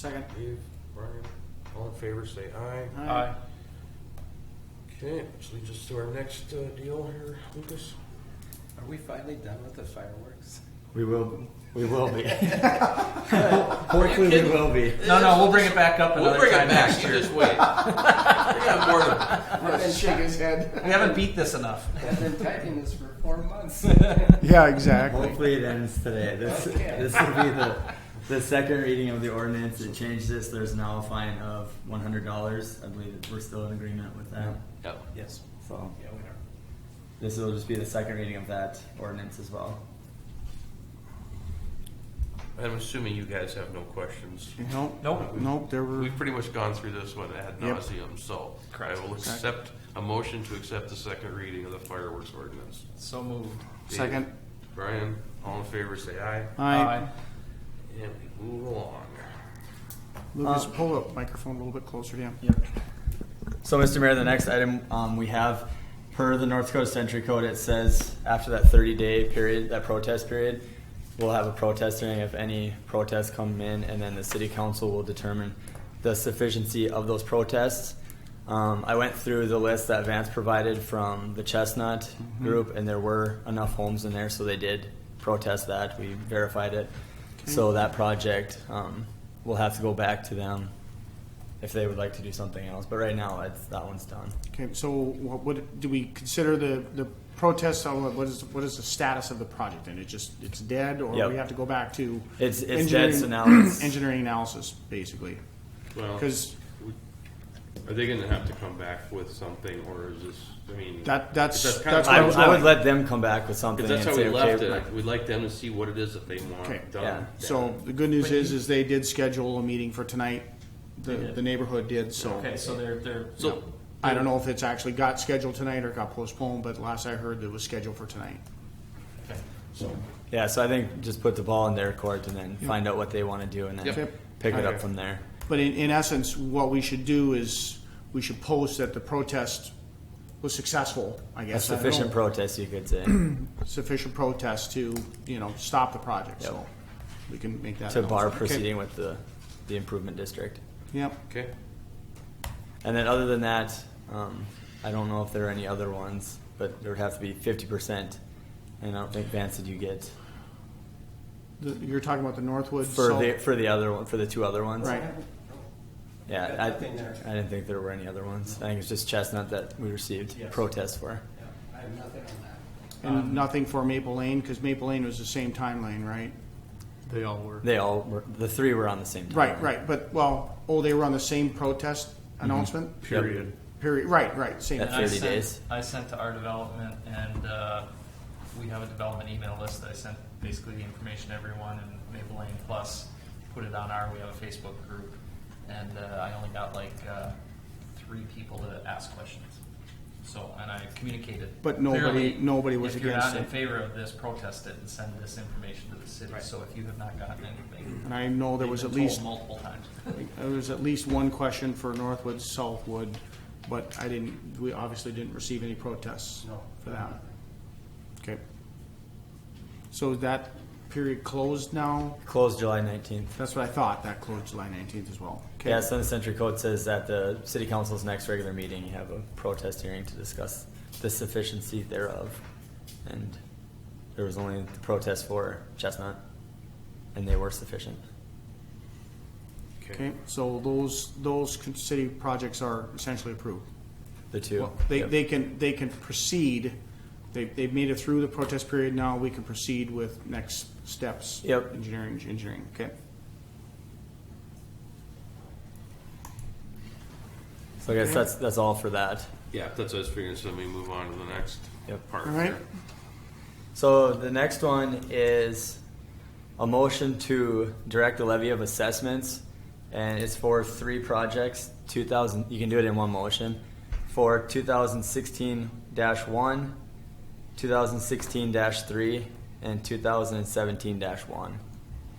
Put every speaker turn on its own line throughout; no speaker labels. Second.
Dave, Brian, all in favor, say aye.
Aye.
Okay, which leads us to our next uh, deal here, Lucas.
Are we finally done with the fireworks?
We will. We will be. Hopefully, we will be.
No, no, we'll bring it back up
We'll
another
bring it
time
back,
next
you
year.
just wait. We got bored of
Ryan shake his head.
We haven't beat this enough.
I've been typing this for four months.
Yeah, exactly.
Hopefully, it ends today. This this will be the the second reading of the ordinance that changed this. There's now a fine of one hundred dollars. I believe that we're still in agreement with that.
No.
Yes.
So
Yeah, we are.
this will just be the second reading of that ordinance as well.
I'm assuming you guys have no questions.
Nope.
Nope.
Nope. There were.
We've pretty much gone through this one ad
Yep.
nauseum, so I
Correct.
will accept a motion to accept the second reading of the fireworks ordinance.
So moved.
Dave,
Second.
Brian, all in favor, say aye.
Aye.
And we move along.
Lucas,
Uh,
pull up microphone a little bit closer to him.
Yep. So, Mr. Mayor, the next item um, we have, per the North Dakota Century Code, it says after that 30-day period, that protest period, we'll have a protest hearing if any protests come in, and then the city council will determine the sufficiency of those protests. Um, I went through the list that Vance provided from the Chestnut group, and there were enough homes in there, so they did protest that. We verified it. So that project um, will have to go back to them if they would like to do something else. But right now, it's, that one's done.
Okay. So, what, what do we consider the the protest? uh, What is what is the status of the project? And it just it's dead, or
Yep.
we have to go back to
It's- it's
engineering-
dead, so now it's-
engineering analysis basically.
Well,
'Cause-
Are they gonna have to come back with something, or is this, I mean?
That- that's-
because kinda
that's
I,
what
what
it's
I would
like-
let them come back with something
Because that's
and
how
say,
we left
okay,
it. We'd like them to see what it is that they
Okay.
want
Yeah.
done.
So the good news is is they did schedule a meeting for tonight. The
did.
the neighborhood did so.
Okay, so they're, they're,
So,
I don't know if it's actually got scheduled tonight or got postponed, but last I heard, it was scheduled for tonight.
yeah. So I think just put the ball in their court and then find out what they want to do and then
Yep.
pick it
Okay.
up from there.
But in, in essence, what we should do is, we should post that the protest was successful, I
A
guess. I don't
sufficient
know.
protest, you could say,
Sufficient protest to, you know, stop the project, so
Yep.
we can make that.
to bar
announcement. Okay.
proceeding with the, the improvement district.
Yep,
okay,
And then other than that, um, I don't know if there are any other ones, but there would have to be 50%. And I don't think Vance did you get
The- you're talking about the Northwood,
for
so,
the for the other one for the two other ones.
right,
Yeah,
Got
I,
nothing there.
I didn't think there were any other ones. I think it's just Chestnut that we received
Yes.
protests for.
I have nothing on that.
and nothing for Maple Lane, because Maple Lane was the same time lane, right?
They all were.
They all were, the three were on the same time.
Right, right, but, well, oh, they were on the same protest announcement?
Period.
Period, right, right, same.
Mm-hmm. That's
And I
30
sent-
days.
I sent to our development and, uh, we have a development email list that I sent basically the information to everyone and Maple Lane Plus put it on our, we have a Facebook group. And, uh, I only got like, uh, three people to ask questions. So, and I communicated.
But nobody-
clearly,
nobody was
If
against
you're not
it.
in favor of this, protest it and send this information to the city. So if you have not gotten anything.
And I know there
they've
was
been
at
told
least
Multiple times.
There was Uh, at least one question for Northwood, Southwood, but I didn't, we obviously didn't receive any protests for that. Okay. So that period closed now?
Closed July 19th.
That's what I thought, that closed July nineteenth as well. Okay.
Yeah, so the Century Code says that the city council's next regular meeting, you have a protest hearing to discuss the sufficiency thereof. And there was only the protest for Chestnut, and they were sufficient.
Okay, so those, those con- city projects are essentially approved.
The two.
Well, They,
Yep.
they can, they can proceed, they, they've made it through the protest period, now we can proceed with next steps.
Yep.
Engineering, engineering, okay.
So I guess that's, that's all for that.
yeah, if that's us figuring, so let me move on to the next
Yep.
part.
All right.
here.
So the next one is a motion to direct the levy of assessments, and it's for three projects. Two thousand, you can do it in one motion. For two thousand sixteen one, two thousand sixteen three, and two thousand and seventeen one.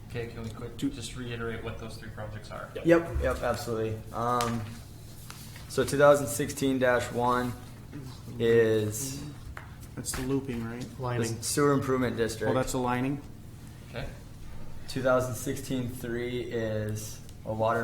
Okay, can we quick, just reiterate what those three projects are?
Yep, yep, absolutely. Um, so two thousand sixteen one is
That's the looping, right?
the sewer improvement district.
Well, that's the lining.
Okay?
2016-3 is a water